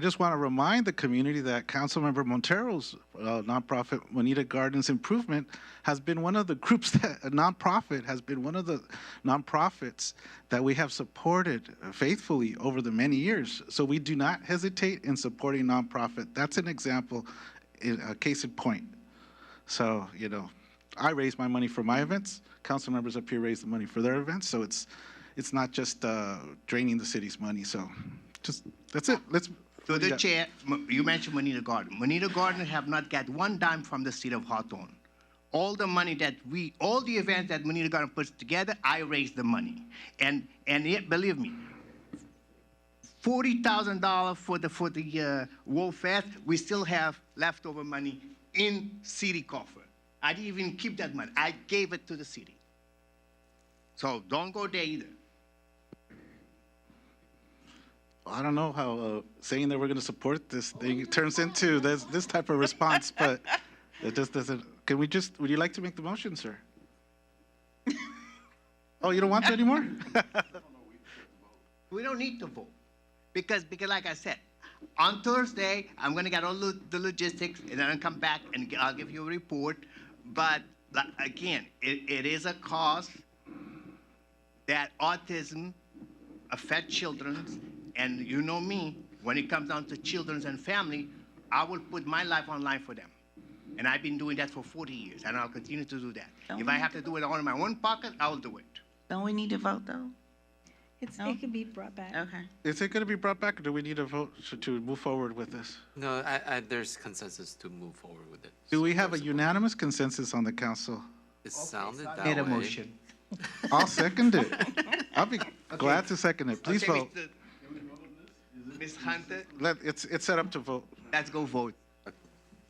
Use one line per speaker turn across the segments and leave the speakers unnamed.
I just want to remind the community that Councilmember Montero's uh, nonprofit Monita Gardens Improvement has been one of the groups that a nonprofit has been one of the nonprofits that we have supported faithfully over the many years. So we do not hesitate in supporting nonprofit. That's an example, in- a case in point. So, you know, I raise my money for my events, council members up here raise the money for their events, so it's, it's not just uh, draining the city's money, so just, that's it, let's.
To the
Yeah.
chair, m- you mentioned Manita Garden. Manita Garden have not got one dime from the city of Hawthorne. All the money that we, all the events that Manita Garden puts together, I raise the money. And, and yet, believe me, forty thousand dollar for the, for the, uh, World Fest, we still have leftover money in city coffer. I didn't even keep that money. I gave it to the city. So don't go there either.
I don't know how uh, saying that we're gonna support this thing turns into this, this type of response, but it just doesn't, can we just, would you like to make the motion, sir? Oh, you don't want to anymore?
We don't need to vote because, because like I said, on Thursday, I'm gonna get all lo- the logistics and then I'll come back and g- I'll give you a report. But like, again, it, it is a cause that autism affects children. And you know me, when it comes down to children and family, I will put my life online for them. And I've been doing that for 40 years and I'll continue to do that. If I have to do it out of my own pocket, I will do it.
Don't we need to vote though?
It's,
No?
it can be brought back.
Okay.
Is it gonna be brought back, or do we need a vote to- to move forward with this?
No, I, I, there's consensus to move forward with it.
Do we
So
have a
there's
unanimous consensus on the council?
It sounded that
Need a
way.
motion.
I'll second it. I'll be glad to second it. Please
Okay,
vote.
Mr. Ms. Hunter,
Let, it's, it's set up to vote.
let's go vote.
That's-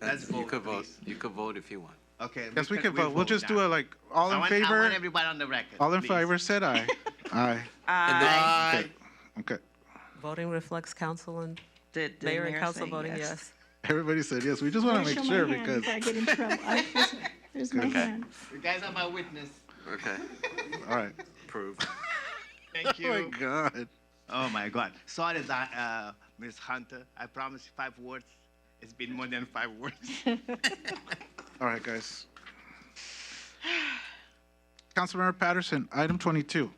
Let's
You
vote,
could vote,
please.
you could vote if you want.
Okay.
Yes, we can vote. We'll just do
now.
it like, all
I
in
want- I want
favor,
everybody on the record.
all in
please.
favor said aye. Aye.
And then-
Okay. Okay.
Voting reflects council and
Did the
mayor and
mayor
council
say
voting
yes?
yes.
Everybody said yes. We just want to
Show
make
my
sure
hand
because,
Before I get in trouble. I- there's- There's my hand.
You guys are my witness.
Okay,
all right.
approved.
Thank
Oh my
you.
God.
Oh my God. Sorry, that, uh, Ms. Hunter. I promised five words. It's been more than five words.
All right, guys. Councilmember Patterson, item 22.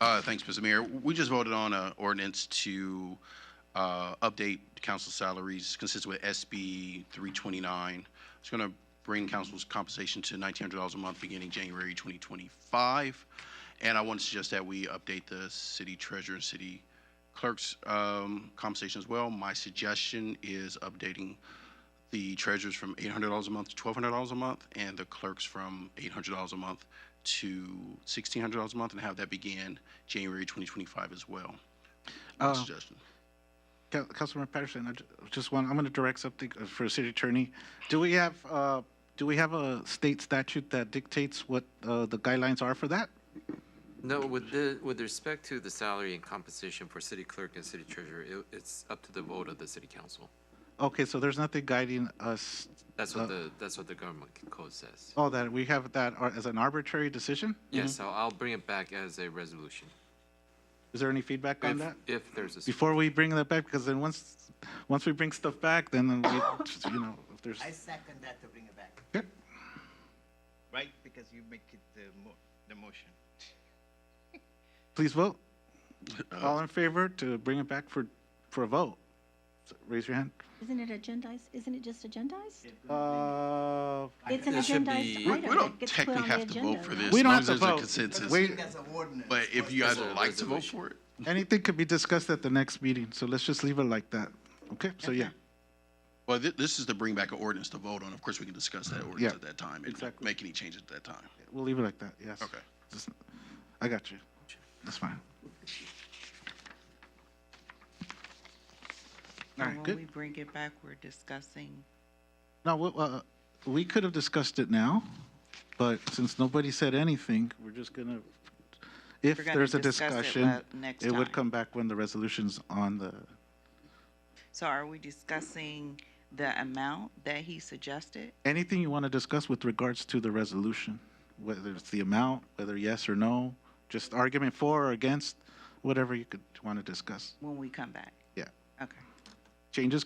Uh, Thanks, Mr. Mayor. We just voted on an ordinance to uh, update council salaries consistent with SB 329. It's going to bring council's compensation to $1,900 a month beginning January 2025. And I want to suggest that we update the city treasurer and city clerk's um, compensation as well. My suggestion is updating the treasurer's from $800 a month to $1,200 a month, and the clerk's from $800 a month to $1,600 a month, and have that begin January 2025 as well. My
Uh,
suggestion.
Coun- Councilmember Patterson, I ju- just want, I'm going to direct something uh, for city attorney. Do we have, uh, do we have a state statute that dictates what uh, the guidelines are for that?
No, with the, with respect to the salary and compensation for city clerk and city treasurer, it, it's up to the vote of the city council.
Okay, so there's nothing guiding us,
That's what the, that's what the government code says.
oh, that, we have that ar- as an arbitrary decision?
Yes, so I'll bring it back as a resolution.
Is there any feedback on
If,
that?
if there's a.
Before we bring that back, because then once, once we bring stuff back, then we, just, you know, if there's,
second that to bring it back.
Okay.
Right? Because you make it the, mo- the motion.
please vote. All in favor to bring it back for, for a vote? So Raise your hand.
Isn't it agendized? Isn't it just agendized?
Uh,
It's an
It should
agendized
be-
We
item
we don't
that gets put
technically
on the
have to vote
agenda.
for
right?
this.
We don't
as long
have
as
to
there's a
vote.
consensus.
We-
an ordinance.
But if you guys
There's
would
a
like to vote
resolution.
for it,
Anything could be discussed at the next meeting, so let's just leave it like that. Okay, so yeah,
well, thi- this is to bring back an ordinance to vote on. Of course, we can discuss that
Yeah,
ordinance at that time and
exactly.
make any changes at that time.
we'll leave it like that, yes.
Okay.
Just- I got you. That's fine. All
Or
right,
when we
good.
bring it back, we're discussing.
Now, we- uh, we could have discussed it now, but since nobody said anything, we're just gonna, if
We're gonna
there's a
discuss it
discussion,
la- next
it would
time.
come back when the resolution's on the,
So are we discussing the amount that he suggested?
anything you want to discuss with regards to the resolution, whether it's the amount, whether yes or no, just argument for or against, whatever you could want to discuss.
When we come back?
Yeah.
Okay.
changes